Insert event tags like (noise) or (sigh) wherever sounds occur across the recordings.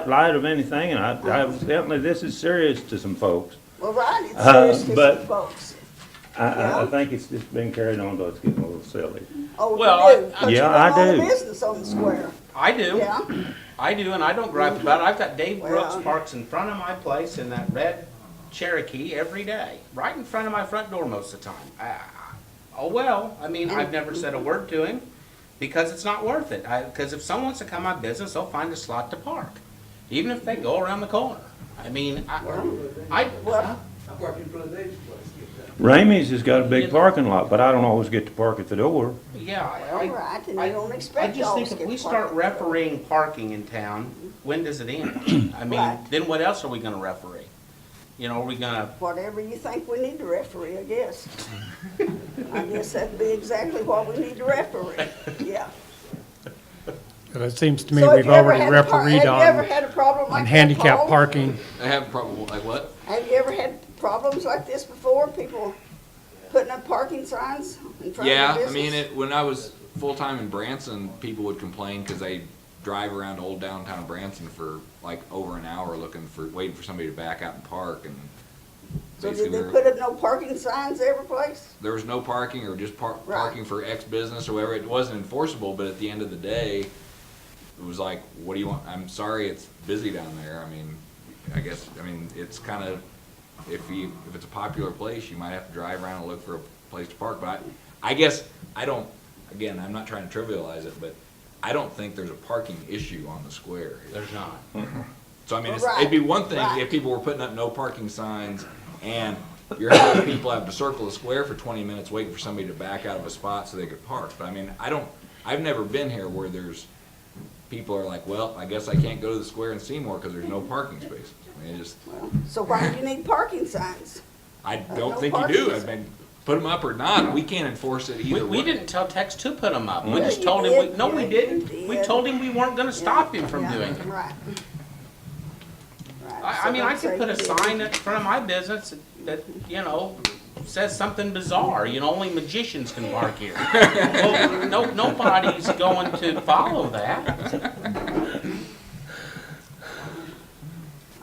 light of anything, and I, evidently this is serious to some folks. Well, right, it's Uh, serious to but- some folks. I, I, I Yeah. think it's just been carried on, though it's getting a little silly. Oh, Well, you do, I- but you Yeah, got I a lot of do. business on the square, I do, yeah? I do, and I don't gripe about it. I've got Dave Brooks Well- parks in front of my place in that red Cherokee every day, right in front of my front door most of the time. Ah, Oh, well, I mean, I've never said a word to him because it's not worth it. I, because if someone wants to come my business, they'll find a slot to park, even if they go around the corner. I mean, I, I, Well, I parked in front of Dave's place, get that. Ramey's has got a big parking lot, but I don't always get to park at the door. yeah. Well, I- right, and I- you don't I expect just y'all to think if get we parked. start refereeing parking in town, when does (clears throat) it end? I mean, Right. then what else are we gonna referee? You know, are we gonna, Whatever you think we need to referee, I (laughs) guess. I guess that'd be exactly what we need to referee, (laughs) yeah. Well, It seems to me So have we've you ever already had a par- refereed Have you ever on, had a problem like on that, handicap Paul? parking. I have probably, like what? Have you ever had problems like this before, people putting up parking signs in front of your Yeah, business? I mean, it, when I was full-time in Branson, people would complain because they drive around old downtown Branson for like over an hour looking for, waiting for somebody to back out and park and So basically did they there- put up no parking signs every place? there was no parking or just par- Right. parking for X business or whatever. It wasn't enforceable, but at the end of the day, it was like, what do you want? I'm sorry, it's busy down there. I mean, I guess, I mean, it's kind of, if you, if it's a popular place, you might have to drive around and look for a place to park. But I, I guess, I don't, again, I'm not trying to trivialize it, but I don't think there's a parking issue on the square. Mm-hmm. there's not. So I mean, it's, Right, it'd be one thing right. if people were putting up no parking signs and you're having people have to circle the square for twenty minutes waiting for somebody to back out of a spot so they could park. But I mean, I don't, I've never been here where there's, people are like, well, I guess I can't go to the square in Seymour because there's no parking space. I mean, it just, So why do you need parking signs? I no don't think you do. I parking. mean, put them up or not, we can't enforce it We, either we way. didn't tell Tex to put them up. We Yeah, just you told him, we- did. no, Yeah, we you didn't. We did. told him we weren't gonna stop him from Yeah, doing it. Right. Right, I, so I mean, I don't say could put a you did. sign in front of my business that- that, you know, says something bizarre, you know, only magicians can bark (laughs) here. Well, No, nobody's going to follow that.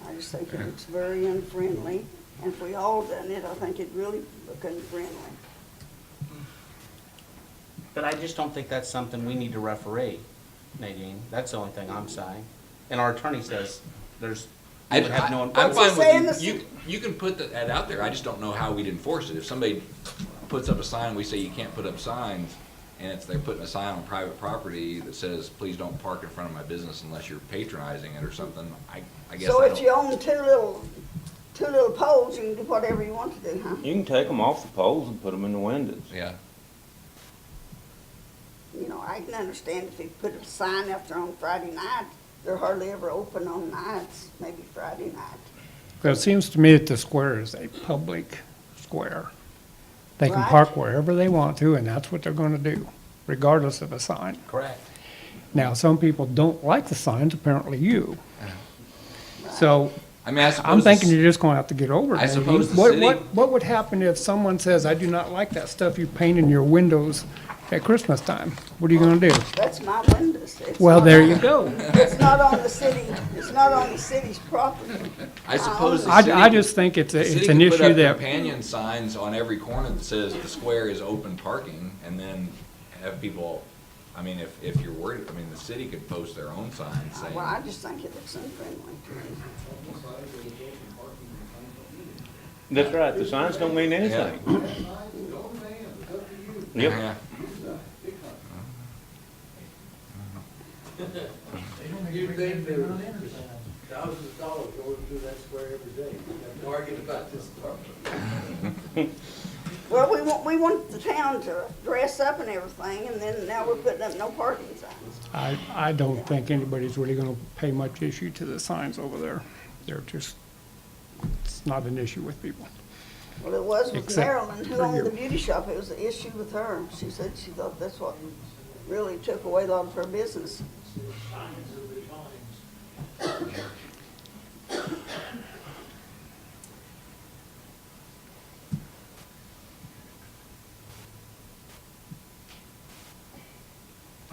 I just think it looks very unfriendly, and if we all done it, I think it'd really look unfriendly. But I just don't think that's something we need to referee, Nadine. That's the only thing I'm saying. And our attorney says there's, I- we would have no. I- I'm What's it say fine in with the you. You, you can put that- that out there. I just don't know how we'd enforce it. If somebody puts up a sign, we say you can't put up signs, and if they're putting a sign on private property that says, please don't park in front of my business unless you're patronizing it or something, I, I guess So I if you don't. own two little, two little poles, you can do whatever you want to do, huh? You can take them off the poles and put them in the windows. Yeah, You know, I can understand if you put a sign up there on Friday night, they're hardly ever open on nights, maybe Friday night. Well, it seems to me that the square is a public square. They can Right. park wherever they want to, and that's what they're gonna do, regardless of a sign. Correct. Now, some people don't like the signs, apparently you. So I mean, I I'm suppose, thinking this- you're just gonna have to get over it. I Nadine. suppose the What- city- What, what would happen if someone says, I do not like that stuff you paint in your windows at Christmas time? What are you gonna do? That's my windows. It's Well, not there on- you go. It's not on the city, it's not on the city's property. I suppose the city. I, I just think it's, a- the city it's an could put issue up that, Companion signs on every corner that says the square is open parking, and then have people, I mean, if, if you're worried, I mean, the city could post their own signs saying. Well, I just think it looks unfriendly to me. That's right, the signs don't mean anything. Don't man, it's up to you. Yep. Yeah. You'd think there were thousands of dollars going through that square every day. You'd Argue about this parking. Well, we want, we want the town to dress up and everything, and then now we're putting up no parking signs. I, I don't think anybody's really gonna pay much issue to the signs over there. They're just, it's not an issue with people. Well, it was with Except Marilyn, who for owned the you. beauty shop, it was an issue with her. She said she thought that's what really took away a lot of her business.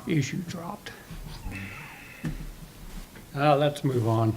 Issue dropped. Uh, let's move on.